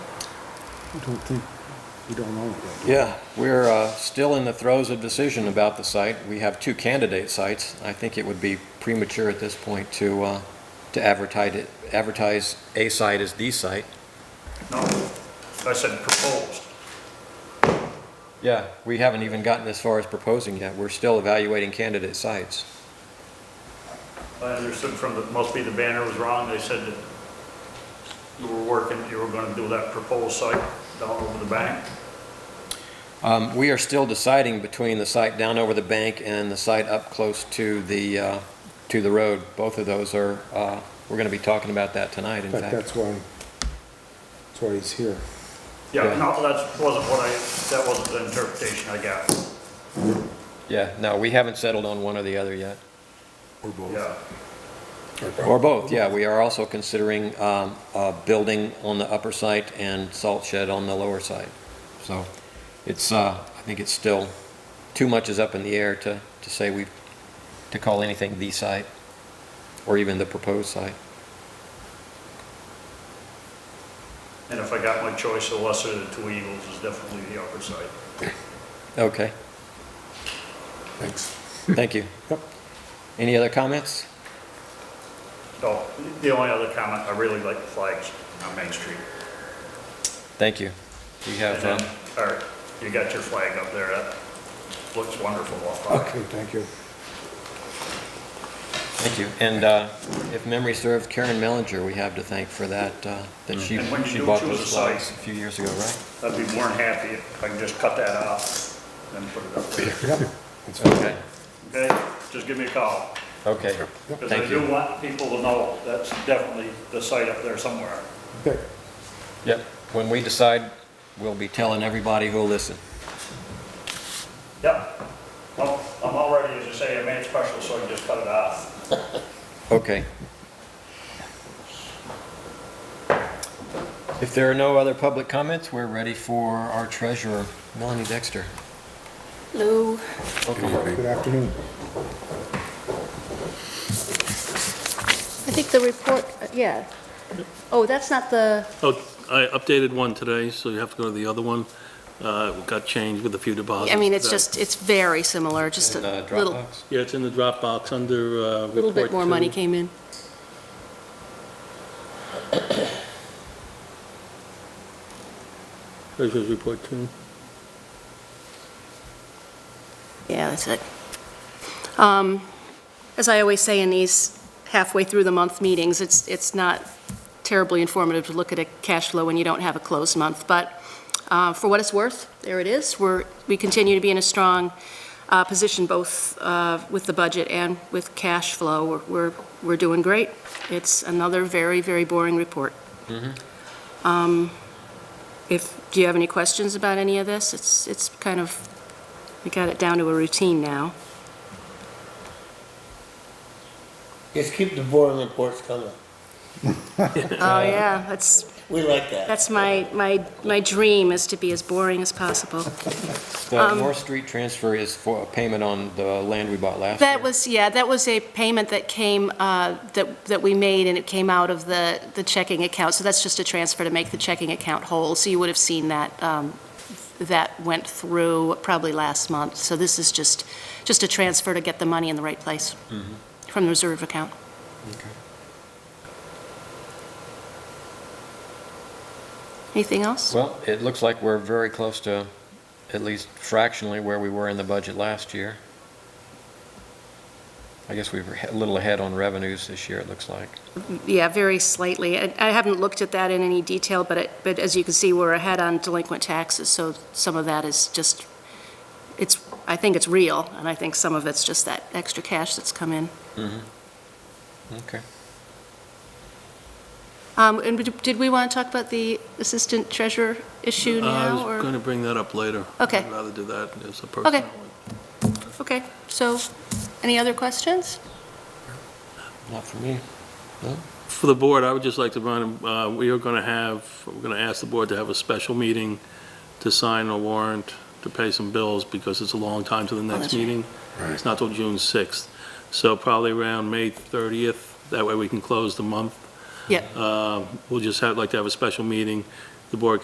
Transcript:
I don't think, we don't own it yet. Yeah, we're uh, still in the throes of decision about the site. We have two candidate sites. I think it would be premature at this point to, uh, to advertise it, advertise a site as the site. No, I said proposed. Yeah. We haven't even gotten as far as proposing yet. We're still evaluating candidate sites. I understood from the, must be the banner was wrong, they said that you were working, you were gonna do that proposed site down over the bank. Um, We are still deciding between the site down over the bank and the site up close to the, uh, to the road. Both of those are, uh, we're going to be talking about that tonight, in In fact, fact. that's why, that's why he's here. Yeah, Yeah. no, that wasn't what I, that wasn't the interpretation I got, Yeah, no, we haven't settled on one or the other yet. Or both. yeah. Or both, yeah. We are also considering um, a building on the upper site and salt shed on the lower site. So it's, uh, I think it's still, too much is up in the air to, to say we, to call anything the site or even the proposed site. And if I got my choice, the lesser of the two evils is definitely the upper side. Okay, Thanks. thank you. Yep. Any other comments? No, the only other comment, I really like the flags on Main Street. Thank you. We And have, then, uh, all right, you got your flag up there, that looks wonderful off by. Okay, thank you. thank you. And uh, if memory serves, Karen Mellinger, we have to thank for that, uh, that she, Mm. And when you she do bought choose those a site- flags a few years ago, right? I'd be more than happy if I could just cut that off and put it up there. Yep. That's fine. Okay, Okay, just give me a call. okay, Because I thank you. do want people to know that's definitely the site up there somewhere. Okay. Yep, when we decide, we'll be telling everybody who'll listen. Yep. Well, I'm already, as you say, I made it special, so I can just cut it off. Okay. If there are no other public comments, we're ready for our treasurer, Melanie Dexter. Lou, Good afternoon. I think the report, uh, yeah. Oh, that's not the, Oh, I updated one today, so you have to go to the other one. Uh, it Got changed with a few deposits. I mean, it's today. just, it's very similar, just a In, uh, little, Dropbox. Yeah, it's in Oh, the Dropbox under uh, report. little bit more money two. came in. Treasurer's report two. Yeah, that's it. Um, As I always say in these halfway through the month meetings, it's, it's not terribly informative to look at a cash flow when you don't have a closed month, but uh, for what it's worth, there it is. We're, we continue to be in a strong uh, position both uh, with the budget and with cash flow. We're- We're, we're doing great. It's another very, very boring report. Um, If, do you have any questions about any of this? It's, it's kind of we got it down to a routine now. Just keep the boring reports coming. Oh, yeah, that's, We like that. that's my, my, my dream is to be as boring as possible. The um, North Street transfer is for a payment on the land we bought last year. That was, yeah, that was a payment that came, uh, that, that we made, and it came out of the, the checking account, so that's just a transfer to make the checking account whole, so you would have seen that, um, that went through probably last month, so this is just, just a transfer to get the money in the right place from the reserve account. Anything else? Well, it looks like we're very close to, at least fractionally, where we were in the budget last year. I guess we were a little ahead on revenues this year, it looks like. Yeah, very slightly. I I haven't looked at that in any detail, but it, but as you can see, we're ahead on delinquent taxes, so some of that is just, it's, I think it's real, and I think some of it's just that extra cash that's come in. Okay. Um, And did- did we want to talk about the assistant treasurer issue Uh, now, I was going or? to bring that up later. Okay. I'd rather do that as a personal one. Okay, so, any other questions? Not for me. For the board, I would just like to run, uh, we are going to have, we're going to ask the board to have a special meeting to sign a warrant to pay some bills because it's a long time to the next Oh, that's right. meeting. It's not till June 6th. So probably around May 30th, that way we can close the month. Yeah. Uh, We'll just have, like to have a special meeting. The board